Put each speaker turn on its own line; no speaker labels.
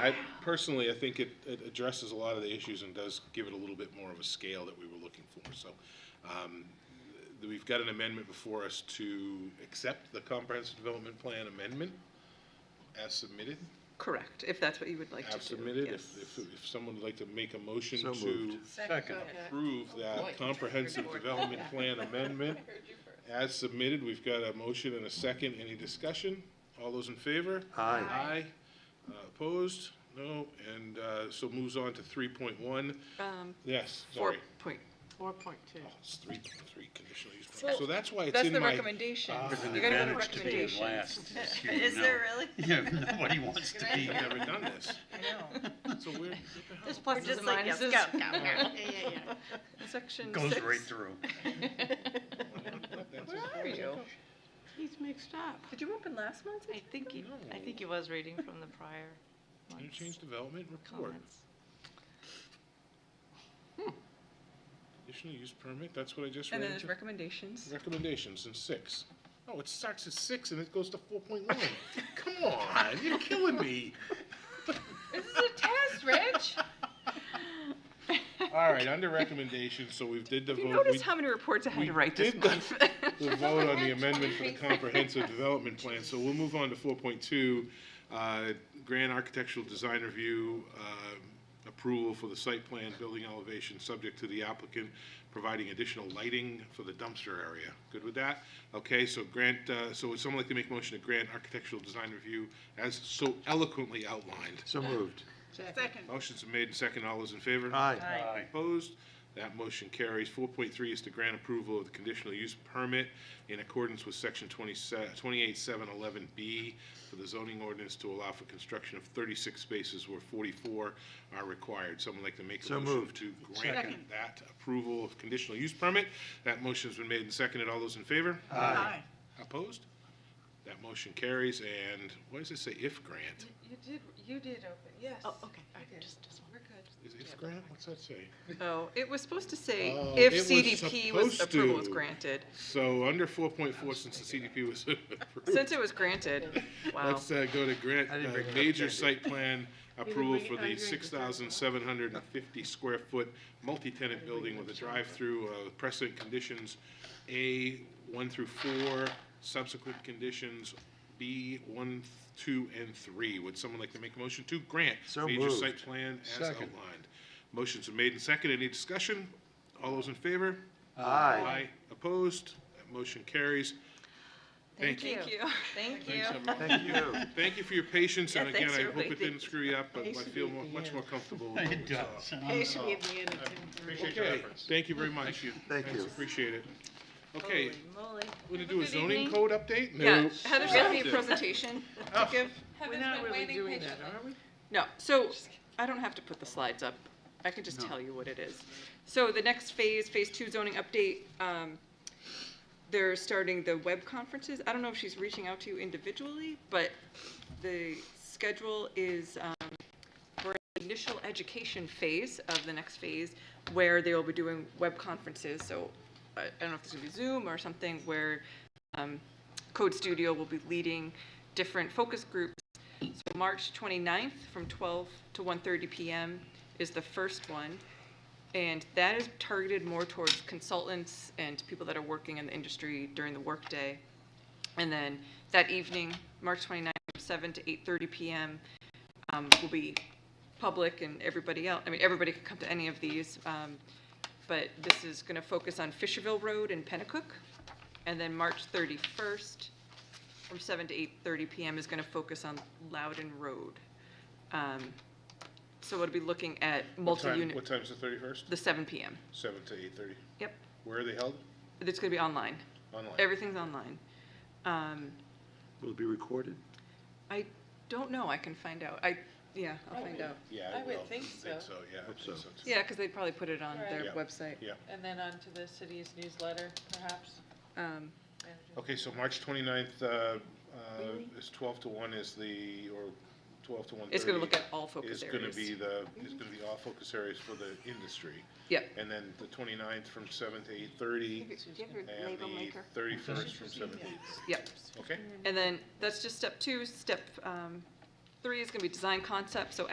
I personally, I think it, it addresses a lot of the issues and does give it a little bit more of a scale that we were looking for. So, um, th- we've got an amendment before us to accept the comprehensive development plan amendment as submitted,
Correct, if that's what you would like to do.
as submitted. If,
yes.
if, if someone would like to make a motion
So
to
moved.
Second.
approve that comprehensive development plan amendment as submitted, we've got a motion and a second. Any discussion? All those in favor?
Aye.
Aye. Uh, Opposed? No. And uh, so moves on to 3.1.
Um,
Yes,
Four
sorry.
point,
Four point two.
Oh, It's 3.3 conditional use permit.
Well,
So that's why it's
That's
in
the
my. Ah.
recommendation. You gotta go to
Advantage to being
recommendations.
last is here
Is
now.
there really?
Yeah, nobody wants to be.
I've never done this.
I know.
So weird.
there's
We're
pluses and
just like, yes, go,
minuses.
go, go. Yeah, yeah, yeah.
Section
Goes
six.
right through.
Where are you?
He's mixed up.
Did you open last month's?
I think, he- I think he was reading from the prior
Interchange
month's
development report.
comments.
Conditional use permit, that's what I just
And
read.
then there's recommendations.
Recommendations in six. Oh, it starts at six and it goes to 4.1. Come on, you're killing me.
This is a test, Rich.
All right, under recommendations, so we've did the
Have
vote.
you
we-
noticed how many reports I had
we
to write this
did the-
month?
We'll vote on the amendment for the comprehensive development plan, so we'll move on to four point two. Grand architectural design review, um, approval for the site plan, building elevation, subject to the applicant providing additional lighting for the dumpster area. Good with that? Okay, so grant, uh, so would someone like to make a motion to grant architectural design review as so eloquently outlined?
So moved.
Second.
Motion's been made and second, all those in favor?
Aye.
Aye.
Opposed? That motion carries. Four point three is to grant approval of the conditional use permit in accordance with section 27 twenty-eight, seven, eleven B for the zoning ordinance to allow for construction of thirty-six spaces where forty-four are required. Someone like to make a
So
motion
moved.
to grant that approval of conditional use permit? That motion's been made and seconded. All those in favor?
Aye.
Opposed? That motion carries. And what does it say? If grant?
You did, you did open, yes.
Oh, okay. I
Okay.
just- just-
We're good.
Is if grant? What's that say?
Oh, it was supposed to say
Oh, it
if
was
CDP was,
supposed
approval was
to.
granted.
So under four point four, since the CDP was approved.
Since it was granted, wow.
Let's uh, go to grant,
I didn't
uh,
bring it up,
major
Andy.
site plan approval
bring it-
for
I
the
didn't bring it
six
up.
thousand seven hundred and fifty square foot multi-tenant building with a drive-through, uh, precedent conditions, A, one through four, subsequent conditions, B, one, two, and three. Would someone like to make a motion to grant
So
major
moved.
site plan as
Second.
outlined? Motions are made and second. Any discussion? All those in favor?
Aye.
Opposed? That motion carries. Thank you.
Thank you.
Thank you.
Thanks, everyone.
Thank you.
Thank you for your patience,
Yeah,
and again,
thanks,
I hope
everybody.
it didn't screw you up, but I
Thanks for
feel
being
mu-
at the
much
end.
more comfortable. with what
It
we saw.
does. and I'm
Patiently at the end of
Appreciate your efforts. Thank you very much.
Thank
Thanks,
you.
Appreciate it. Okay,
Moly.
we're gonna do a
good
zoning
evening.
code update?
Yeah,
Nope.
Heather got me a presentation to give.
We're not really doing that, are we?
No, so I don't have to put the slides up. I can just tell you what it is. So the next phase, phase two zoning update, um, they're starting the web conferences. I don't know if she's reaching out to you individually, but the schedule is, um, we're in the initial education phase of the next phase where they will be doing web conferences. So uh, I I don't know if this will be Zoom or something where, um, Code Studio will be leading different focus groups so March 29th from 12 to 1:30 PM is the first one. And that is targeted more towards consultants and people that are working in the industry during the workday. And then that evening, March 29th, from 7 to 8:30 PM, um, will be public and everybody else, I mean, everybody could come to any of these. um, But this is going to focus on Fisherville Road and Pennacook. And then March 31st, from seven to eight thirty PM is gonna focus on Loudon Road. Um, So it'll be looking
What
at
time-
multi-unit,
What time's the thirty-first?
the seven PM.
Seven to eight-thirty.
Yep,
Where are they held?
it's gonna be online.
Online.
Everything's online. Um,
Will it be recorded?
I don't know, I can find out. I, yeah, I'll find out.
Yeah,
I would
will.
think so.
yeah. I
Hope
think
so.
too.
Yeah, because they'd probably put it on their
Right.
website.
Yeah.
And then on to the city's newsletter, perhaps.
Um,
Okay, so March 29th uh, uh, is twelve to one is the, or twelve to one thirty.
It's gonna look at all focus
Is gonna
areas.
be the, is gonna be all focus areas for the industry.
Yep.
And then the 29th from seven to eight-thirty. And the thirty-first from seven to eight.
Yep.
Okay?
And then that's just step two. Step um, three is going to be design concept. So